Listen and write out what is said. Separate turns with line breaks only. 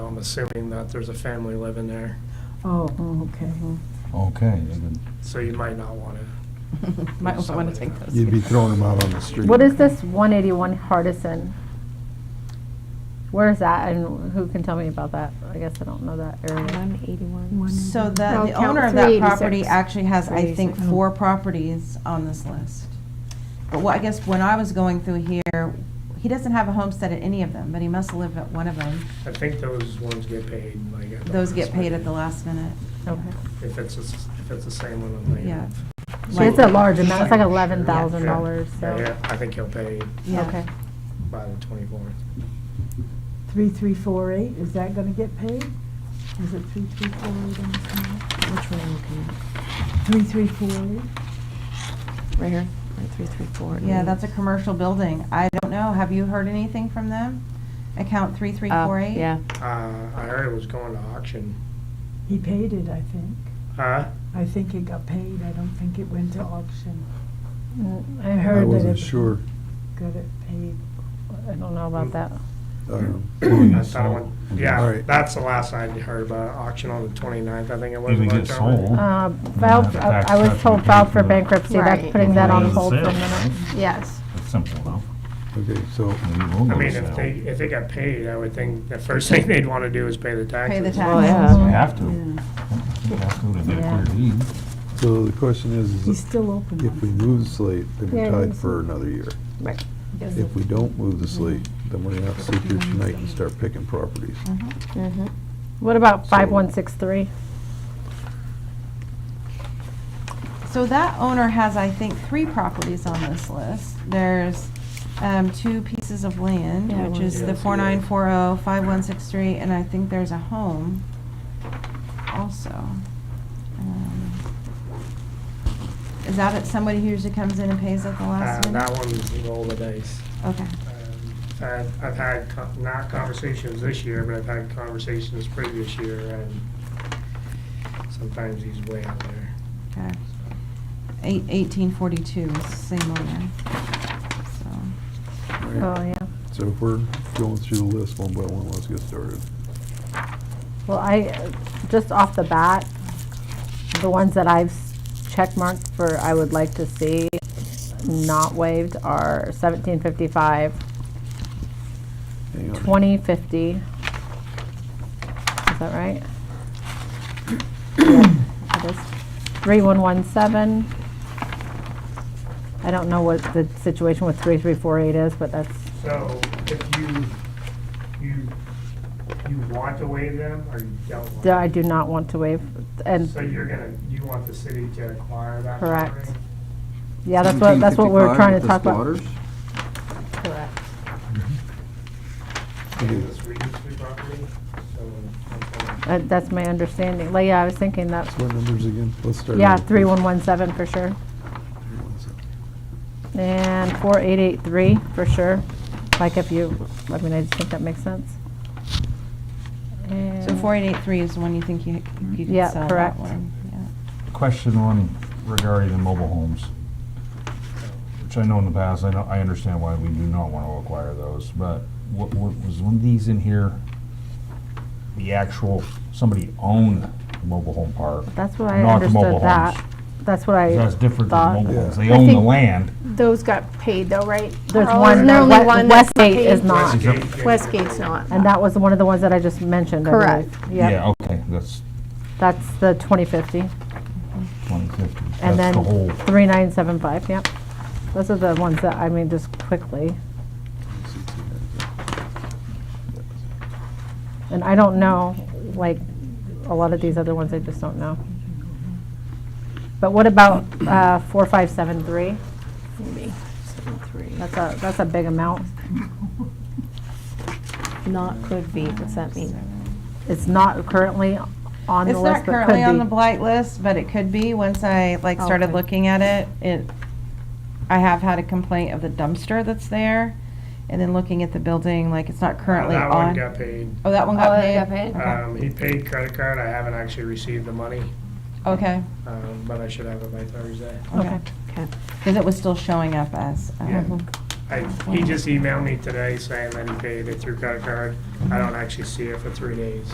assuming that there's a family living there,
Oh, oh, okay.
Okay, then
so you might not want to.
Might also want to take those.
you'd be throwing them out on the street.
What is this 181 Hardison? Where is that, and who can tell me about that? I guess I don't know that area.
One eighty-one. Oh,
So the,
Well,
the
count
owner of that
386.
property actually has, I think,
386.
four properties on this list. But what, I guess when I was going through here, he doesn't have a homestead at any of them, but he must live at one of them.
I think those ones get paid, like. at the
Those get
last
paid at
minute.
the last minute.
Okay.
If it's, a s- if it's the same one on the.
Yeah.
So It's a large amount, it's like
Yeah.
$11,000,
Yeah, yeah,
so,
I think he'll pay
Yeah.
okay.
by the twenty-fourth.
3348, is that going to get paid? Is it 3348 on this one?
Which one are you looking
3348?
at? Right here, right, three, three, four.
Yeah,
eight.
that's a commercial building. I don't know, have you heard anything from them? Account three three
Oh,
four eight?
Yeah.
Uh, I heard it was going to auction.
He paid it, I think.
Huh?
I think it got paid, I don't think it went to auction.
Mm, I
I
heard that
wasn't
it
sure.
Got it paid.
I don't know about that.
Um,
I thought it went-
All
Yeah,
right.
that's the last I heard about it. auction on the 29th, I think it was.
Didn't
March
get
already.
sold.
Uh,
Then
Filed,
that's
I
tax
I was
cut
told
we
filed
paid
for
for the-
bankruptcy, that's
Right.
putting that on
Raise the
hold for a
sale,
minute.
right?
Yes.
That's simple enough.
Okay, so,
Maybe we'll
I
go
mean,
sell.
if they, if they got paid, I would think the first thing they'd want to do is pay the taxes.
Pay the
Well,
taxes.
Oh, yeah.
They have to. They have to to get a clear deed.
so the question is,
He's
is
still open.
if we move the slate, then
Yeah,
we're
I
tied
see.
for another year.
Right.
If we don't move the slate, then we're gonna have to sit here tonight and start picking properties.
Mm-hmm.
What about
So-
5163?
So that owner has, I think, three properties on this list. There's um, two pieces of land,
Yeah,
which
one-
is
Yeah,
the
so-
4940, 5163, and I think there's a home also. Um, Is that it? somebody who usually comes in and pays at the last
Uh,
minute?
That one, roll the dice.
Okay.
Um, I've, I've had, co- not conversations this year, but I've had conversations previous year, and sometimes he's way out there.
Okay. Eight- 1842, is the same owner. So,
All
Oh,
right?
yeah.
So if we're going through the list one by one, let's get started.
Well, I, uh, just off the bat, the ones that I've s- checkmarked for I would like to see not waived are 1755,
Hang on.
2050. Is that right? Yeah, It is. 3117. I don't know what the situation with 3348 is, but that's,
So if you, you, you want to waive them, or you don't want?
that I do not want to waive. And,
So you're gonna, you want the city to acquire that
Correct.
property?
yeah, that's what, that's what
1755
we're trying
with
to
the
talk about.
squatters?
Correct.
And This Regency property, so.
Uh, That's my understanding. Like, yeah, I was thinking that,
What numbers again? Let's start.
yeah,
with-
3117 for sure. And 4883 for sure. Like if you, I mean, I just think that makes sense.
so
And-
4883 is the one you think you you
Yeah,
could sell that
correct.
one? Yeah,
Question on regarding the mobile homes, which I know in the past, I know, I understand why we do not want to acquire those, but what, what, was one of these in here? The actual, somebody owned the mobile home park?
That's what I
not the mobile
understood that.
homes.
That's what I
That's different
thought.
than mobile homes.
Yeah.
They
I
own the
think-
land.
Those got paid though, right?
There's
Carl?
one,
Isn't there only one that's
Westgate is
paid?
not.
Westgate.
Westgate's not.
And that was one of the ones that I just mentioned, I
Correct.
believe. Yep,
Yeah, okay, that's
that's the 2050.
twenty fifty.
And
That's the
then
whole.
3975, yep. Those are the ones that, I mean, just quickly. And I don't know, like, a lot of these other ones, I just don't know. But what about uh, 4573?
Maybe. Seven, three.
That's a, that's a big amount.
Not could be, what's that mean?
It's not currently on the
It's
list, but
not
could
currently on the
be.
blight list, but it could be, once I, like,
Oh,
started
okay.
looking at it, it, I have had a complaint of the dumpster that's there, and then looking at the building, like, it's not currently
That one
on.
got paid.
Oh, that one
Oh,
got
that
paid?
got paid?
Okay.
Um, he paid credit card, I haven't actually received the money,
Okay,
um, but I should have it by Thursday.
okay,
Okay.
because it was still showing up as, um,
Yeah. I, he just emailed me today saying that he paid it through credit card. I don't actually see it for three days.